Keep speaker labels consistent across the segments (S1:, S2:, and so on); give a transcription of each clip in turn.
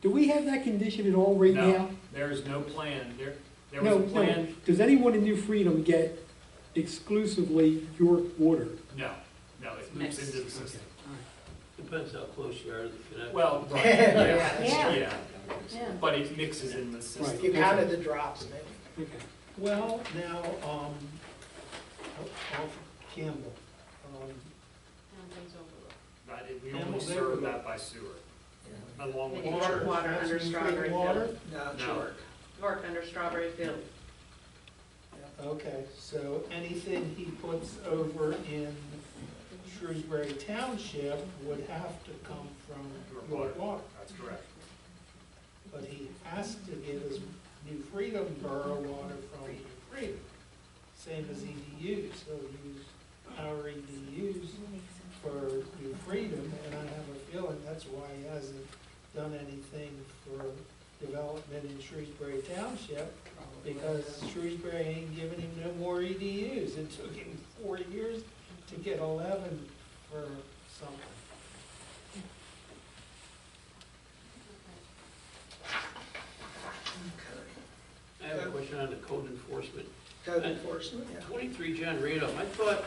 S1: Do we have that condition at all right
S2: No,
S1: now?
S2: There is no plan. There, there
S1: No,
S2: was
S1: no.
S2: a plan,
S1: Does anyone in New Freedom get exclusively your water?
S2: no, no, it moves
S3: Mixed.
S2: into the system.
S4: Depends how close you are to the connection.
S2: Well, right,
S5: Yeah.
S2: yeah,
S3: Yeah.
S2: yeah,
S3: Yeah.
S2: but it mixes in the
S1: Right.
S2: system.
S5: You counted the drops, maybe.
S1: Okay.
S6: Well, now, um, off Campbell, um,
S2: Right, it- we only serve that by sewer, along with
S3: Maybe
S2: the
S3: dark
S2: church.
S3: Water under
S6: Aspen
S3: strawberry
S6: Creek Water?
S3: field.
S5: No,
S2: No.
S5: York.
S3: York under Strawberry Field.
S6: Okay, so anything he puts over in Shrewsbury Township would have to come from
S2: York
S6: York
S2: Water.
S6: Water.
S2: That's correct.
S6: But he has to get his New Freedom Borough water from New Freedom, same as E EDUs. He'll use our EDUs E for New Freedom, and I have a feeling that's why he hasn't done anything for development in Shrewsbury Township, because Shrewsbury ain't giving him no more EDUs. It took him four years to get eleven for something.
S4: I have a question on the code enforcement.
S5: Code enforcement, yeah.
S4: Twenty-three John Randolph, I thought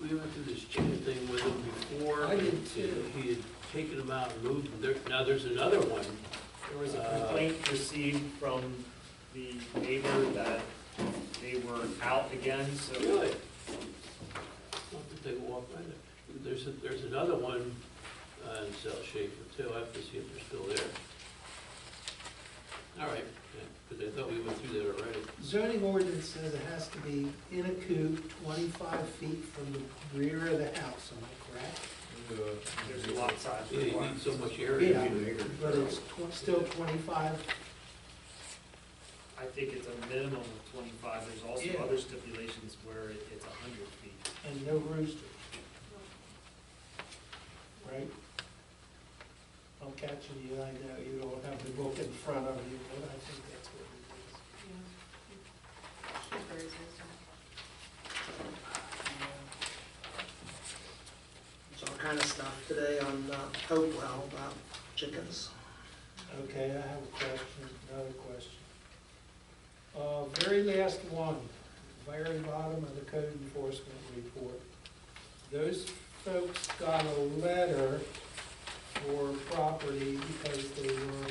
S4: we went through this chicken thing with him before.
S5: I did too.
S4: and He had taken them out and moved them. There- Now there's another one.
S2: There was a
S4: Uh,
S2: complaint received from the neighbor that they were out again, so
S4: Really? I'll have to take a walk by there. There's, a- there's another one uh, in South Schaefer too. I have to see if they're still there. All right, because I thought we went through that already.
S6: Zoning ordinance says it has to be in a coop twenty-five feet from the rear of the house, am I correct?
S2: there's a lot of size.
S4: Yeah, You need so much area.
S6: Yeah, but it's tw- still twenty-five,
S2: I think it's a minimum of twenty-five. There's
S6: Yeah.
S2: also other stipulations where it- it's hundred feet.
S6: and no roosters. Right? I'm catching you, I know you don't have the book in front of you, but I think that's what it is.
S5: There's all kind of stuff today on uh, Hopewell about chickens.
S6: Okay, I have a question, another question. Uh, very last one, very bottom of the code enforcement report. Those folks got a letter for property because they were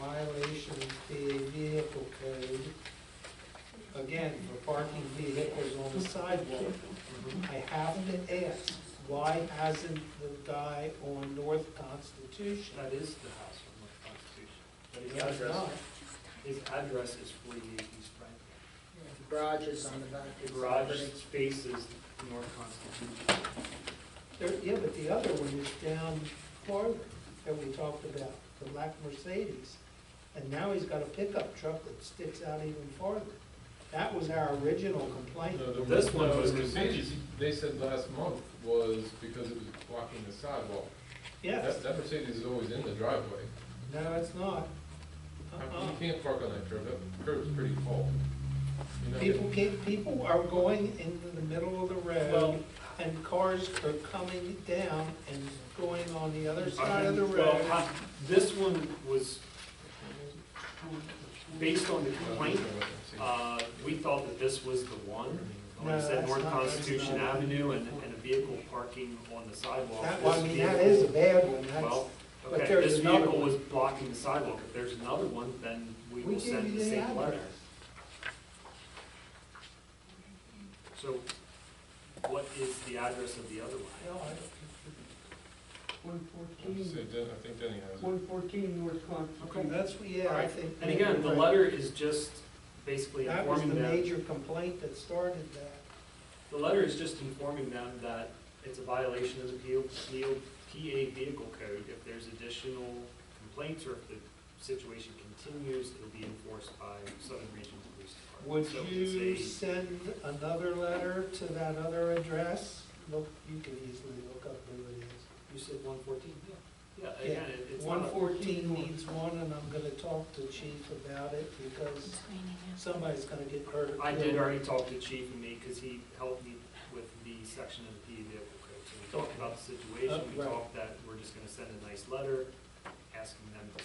S6: violation of PA vehicle code. Again, for parking vehicles on the sidewalk. I have to ask, why hasn't the guy on North Constitution
S2: That is the house on the Constitution. But his
S6: yeah, it's
S2: address,
S6: not.
S2: his address is forty-eight East Franklin.
S5: The Garage is on the back. of
S2: The garage
S5: property.
S2: space is North Constitution.
S6: There- Yeah, but the other one is down farther that we talked about, the black Mercedes. And now he's got a pickup truck that sticks out even farther. That was our original complaint.
S2: This one was
S7: Mercedes, they said last month was because it was blocking the sidewalk.
S6: Yes,
S7: That, that Mercedes is always in the driveway.
S6: no, it's not.
S7: I mean,
S6: Uh-uh.
S7: You can't park on that curb, that curb's pretty full. You know,
S6: People can't, people are going into the middle of the road and cars are coming down and going on the other side of the
S2: Well,
S6: road.
S2: I- This one was based on the
S7: I don't
S2: complaint.
S7: know what I'm saying.
S2: Uh, we thought that this was the one. When
S6: No,
S2: I said
S6: that's
S2: North
S6: not- that's
S2: Constitution
S6: not-
S2: Avenue and, and a vehicle parking on the sidewalk.
S6: That, well, I
S2: This
S6: mean, that
S2: vehicle-
S6: is a bad one, that's,
S2: Well,
S6: but
S2: okay,
S6: there's
S2: this
S6: another
S2: vehicle
S6: one.
S2: was blocking the sidewalk. If there's another one, then we
S6: We
S2: will
S6: gave you
S2: send the
S6: the
S2: same letter.
S6: address.
S2: So what is the address of the other one?
S6: no, I don't.
S8: One
S7: So
S8: fourteen,
S7: Den- I think Denny has it.
S8: one fourteen North
S6: Okay,
S8: Constitution.
S6: that's, yeah, I think.
S2: And again, the letter is just basically
S6: That was the
S2: informing them,
S6: major complaint that started that.
S2: the letter is just informing them that it's a violation of the PO PO PA vehicle code. If there's additional complaints or if the situation continues, it'll be enforced by Southern Region Police
S6: Would
S2: Department. So it's
S6: you
S2: a-
S6: send another letter to that other address? Look, you can easily look up who it is.
S2: You said one fourteen, yeah. Yeah,
S6: Yeah,
S2: again, it- it's not.
S6: One
S2: a-
S6: fourteen needs one, and I'm gonna talk to chief about it, because somebody's gonna get hurt.
S2: I did already talk to Chief and me, because he helped me with the section of the E PE vehicle code. So we talked about the situation, we
S6: Uh, right.
S2: talked that we're just gonna send a nice letter, asking them to